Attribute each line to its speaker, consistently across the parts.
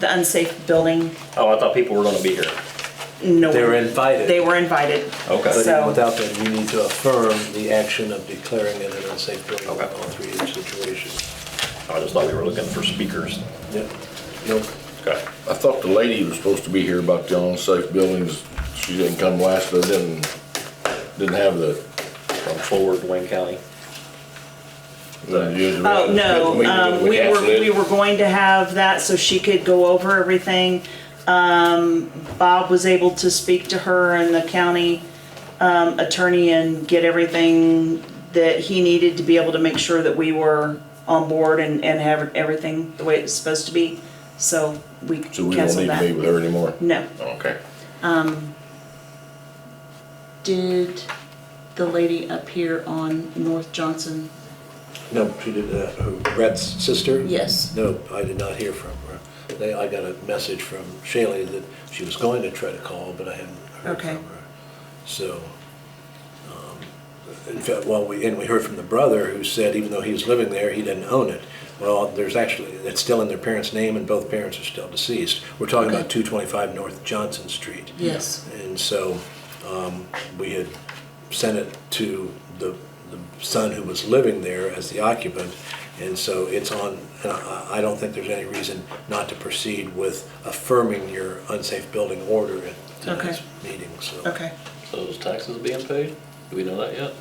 Speaker 1: the unsafe building,
Speaker 2: Oh, I thought people were gonna be here.
Speaker 1: no.
Speaker 3: They were invited.
Speaker 1: They were invited.
Speaker 2: Okay.
Speaker 3: But
Speaker 1: So-
Speaker 3: even without that, we need to affirm the action of declaring it an unsafe building in
Speaker 2: Okay.
Speaker 3: all three situations.
Speaker 2: I just thought we were looking for speakers.
Speaker 3: Yep. Nope.
Speaker 2: Okay.
Speaker 4: I thought the lady was supposed to be here about the unsafe buildings. She didn't come last, but didn't, didn't have the.
Speaker 2: From Forward, Wayne County.
Speaker 1: Oh, no, um, we were, we were going to have that so she could go over everything. Um, Bob was able to speak to her and the county, um, attorney and get everything that he needed to be able to make sure that we were on board and, and have everything the way it's supposed to be. So we
Speaker 4: So we don't
Speaker 1: canceled
Speaker 4: need to meet
Speaker 1: that. Mm-hmm.
Speaker 4: with her anymore?
Speaker 1: No.
Speaker 4: Okay.
Speaker 1: Did the lady up here on North Johnson?
Speaker 3: No, she did, uh, who, Brett's sister?
Speaker 1: Yes.
Speaker 3: No, I did not hear from her. They, I got a message from Shaylee that she was going to try to call, but I hadn't heard
Speaker 1: Okay.
Speaker 3: from her. So, um, in fact, well, we, and we heard from the brother who said even though he was living there, he didn't own it. Well, there's actually, it's still in their parents' name and both parents are still deceased. We're talking about
Speaker 1: Okay.
Speaker 3: 225 North Johnson Street.
Speaker 1: Yes.
Speaker 3: And so um, we had sent it to the the son who was living there as the occupant, and so it's on, and I I don't think there's any reason not to proceed with affirming your unsafe building order at tonight's meeting, so.
Speaker 1: Okay.
Speaker 5: So is taxes being paid? Do we know that yet?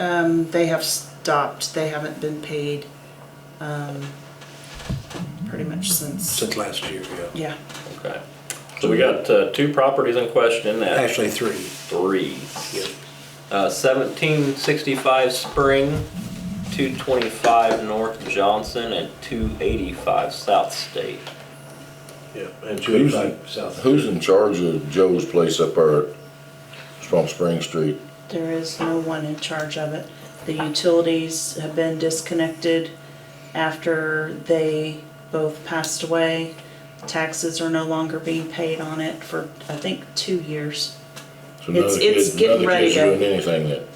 Speaker 1: Um, They have stopped, they haven't been paid, um, pretty much since,
Speaker 3: Since last year, yeah.
Speaker 1: yeah.
Speaker 5: Okay. So we got uh, two properties in question at
Speaker 3: Actually, three.
Speaker 5: three.
Speaker 3: yeah.
Speaker 5: Uh, 1765 Spring, 225 North Johnson, and 285 South State.
Speaker 3: Yeah, and two
Speaker 4: Who's,
Speaker 3: eighty-five south.
Speaker 4: who's in charge of Joe's place up there at Swamp Spring Street?
Speaker 1: There is no one in charge of it. The utilities have been disconnected after they both passed away. Taxes are no longer being paid on it for, I think, two years.
Speaker 4: So
Speaker 1: It's-
Speaker 4: none of the
Speaker 1: it's
Speaker 4: kids-
Speaker 1: getting ready
Speaker 4: None
Speaker 1: to-
Speaker 4: of the kids are doing anything yet.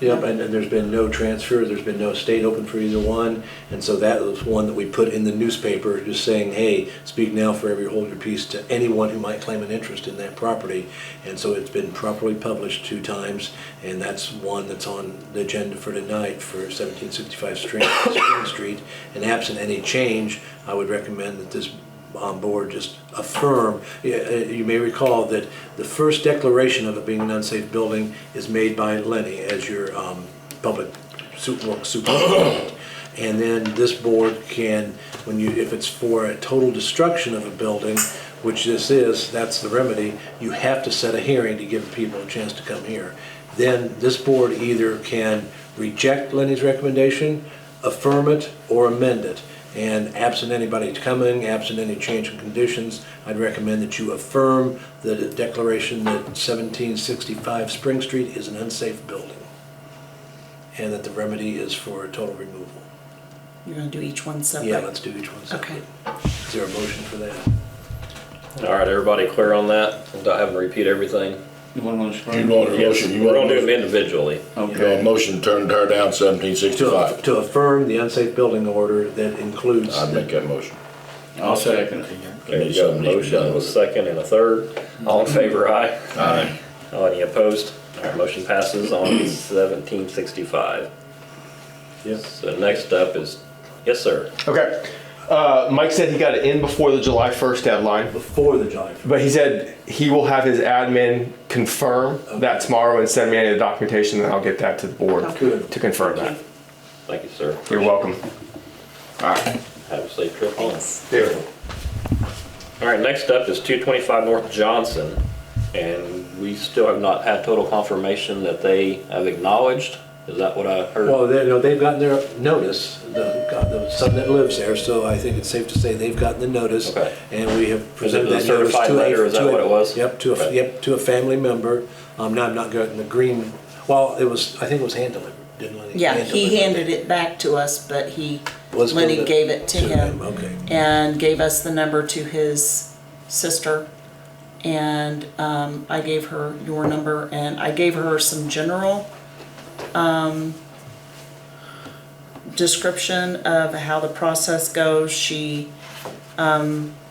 Speaker 3: Yep, and, and there's been no transfer, there's been no state open for either one, and so that was one that we put in the newspaper, just saying, hey, speak now forever, you hold your peace to anyone who might claim an interest in that property. And so it's been properly published two times, and that's one that's on the agenda for tonight for seventeen sixty-five Spring, Spring Street. And absent any change, I would recommend that this on board just affirm, Yeah, uh, you may recall that the first declaration of it being an unsafe building is made by Lenny as your um, public su- well, superintendent. And then this board can, when you, if it's for a total destruction of a building, which this is, that's the remedy, you have to set a hearing to give people a chance to come here. Then this board either can reject Lenny's recommendation, affirm it, or amend it. And absent anybody coming, absent any change in conditions, I'd recommend that you affirm the declaration that 1765 Spring Street is an unsafe building, and that the remedy is for total removal.
Speaker 1: You're gonna do each one separate?
Speaker 3: Yeah, let's do each one separately. Is there a motion for that?
Speaker 5: All right, everybody clear on that? Without having to repeat everything?
Speaker 6: You want one spring?
Speaker 4: You want a motion, you
Speaker 5: We're
Speaker 4: want
Speaker 5: gonna do them
Speaker 4: a
Speaker 5: individually.
Speaker 4: you want a motion to turn her down seventeen
Speaker 3: To
Speaker 4: sixty-five?
Speaker 3: to affirm the unsafe building order that includes.
Speaker 4: I'd make that motion.
Speaker 6: I'll second it.
Speaker 5: Okay, you got a motion, a second and a third. All in favor, aye? Aye. Oh, any opposed? All right, motion passes on 1765.
Speaker 3: Yep.
Speaker 5: So next up is, yes, sir.
Speaker 7: Okay. Uh, Mike said he got it in before the July 1st deadline,
Speaker 3: Before the July 1st.
Speaker 7: but he said he will have his admin confirm that tomorrow and send me any of the documentation, and I'll get that to the board
Speaker 3: Good.
Speaker 7: to confirm that.
Speaker 5: Thank you, sir.
Speaker 7: You're welcome. All right.
Speaker 5: Have a safe trip home.
Speaker 1: Thanks.
Speaker 7: Beautiful.
Speaker 5: All right, next up is 225 North Johnson, and we still have not had total confirmation that they have acknowledged. Is that what I heard?
Speaker 3: Well, they, no, they've gotten their notice, the, got the son that lives there, so I think it's safe to say they've gotten the notice.
Speaker 5: Okay.
Speaker 3: And we have presented
Speaker 5: the
Speaker 3: that notice
Speaker 5: certified
Speaker 3: to a.
Speaker 5: letter, is that
Speaker 3: to a-
Speaker 5: what it was?
Speaker 3: Yep, to a,
Speaker 5: Okay.
Speaker 3: yep, to a family member. Um, now I'm not getting the green, well, it was, I think it was hand delivered, didn't Lenny?
Speaker 1: Yeah,
Speaker 3: Hand
Speaker 1: he
Speaker 3: deliver.
Speaker 1: handed it back to us, but he,
Speaker 3: Was
Speaker 1: Lenny
Speaker 3: given
Speaker 1: gave it to him.
Speaker 3: Okay.
Speaker 1: and gave us the number to his sister. And um, I gave her your number and I gave her some general um, description of how the process goes. She